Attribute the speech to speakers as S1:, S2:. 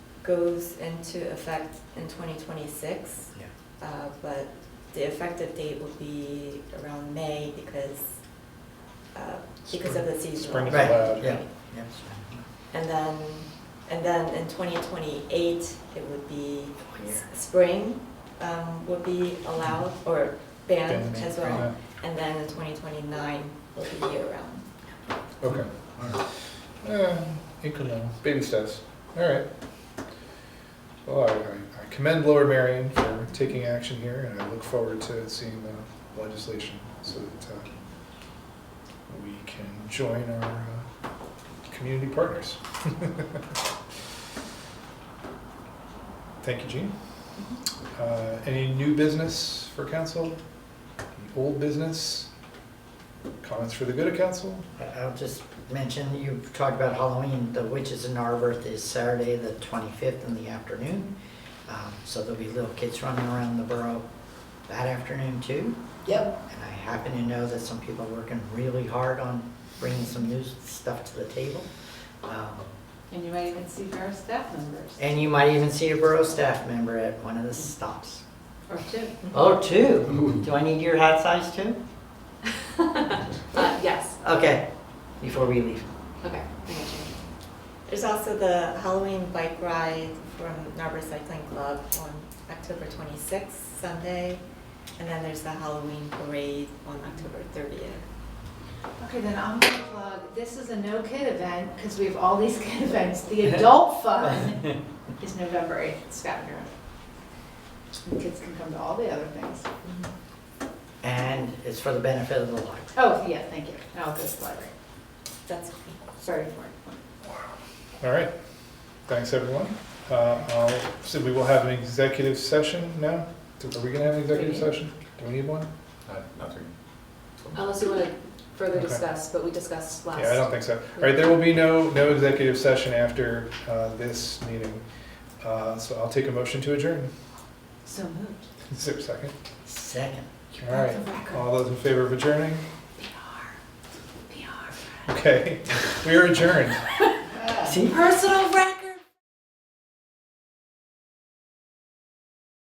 S1: goes into effect in 2026,
S2: Yeah.
S1: uh, but the effective date will be around May because, uh, because of the
S3: Spring
S1: seasonal.
S3: is
S2: Right,
S3: allowed.
S2: yeah,
S1: Right.
S2: yeah.
S1: And then, and then in 2028, it would be,
S2: Oh, yeah.
S1: spring um, would be allowed or banned
S3: Banned,
S1: as
S3: Um,
S1: well. And then in 2029 will be year round.
S3: Okay, all right. Uh, incremental, baby steps, all right. Well, I- I I commend Lower Marion for taking action here, and I look forward to seeing the legislation so that uh, we can join our uh, community partners. Thank you, Jean. Uh, Any new business for council? Any Old business? Comments for the good of council?
S2: I- I'll just mention, you talked about Halloween, the Witches in Narberth is Saturday, the 25th in the afternoon. Um, So there'll be little kids running around the borough that afternoon too.
S4: Yep.
S2: And I happen to know that some people are working really hard on bringing some new stuff to the table. Um,
S4: And you might even see various staff members,
S2: And you might even see a borough staff member at one of the stops.
S4: or two.
S1: Mm-hmm.
S2: Oh, two? Do I need your hat size too?
S4: Uh, yes,
S2: Okay, before we leave.
S4: okay, I got you.
S1: There's also the Halloween bike ride from Narber Cycling Club on October 26th, Sunday. And then there's the Halloween parade on October 30th.
S5: Okay, then I'm gonna plug, this is a no kid event, because we have all these kid events. The adult fun is November eighth, Scavenger. And kids can come to all the other things.
S2: And it's for the benefit of the library.
S5: Oh, yeah, thank you. Now I'll go to the library.
S1: That's
S5: Sorry for it.
S3: All right, thanks, everyone. Uh, I'll- So we will have an executive session now? Are we gonna have an executive
S4: Do we?
S3: session? Do we need one?
S6: Nothing.
S4: Unless you want to further
S3: Okay.
S4: discuss, but we discussed last.
S3: Yeah, I don't think so. All right, there will be no, no executive session after uh, this meeting. Uh, So I'll take a motion to adjourn.
S5: So moved.
S3: Is there a second?
S2: Second.
S3: All right,
S5: the record.
S3: all those in favor of adjourning?
S5: PR.
S3: Okay, we are adjourned.
S2: See?
S4: Personal record.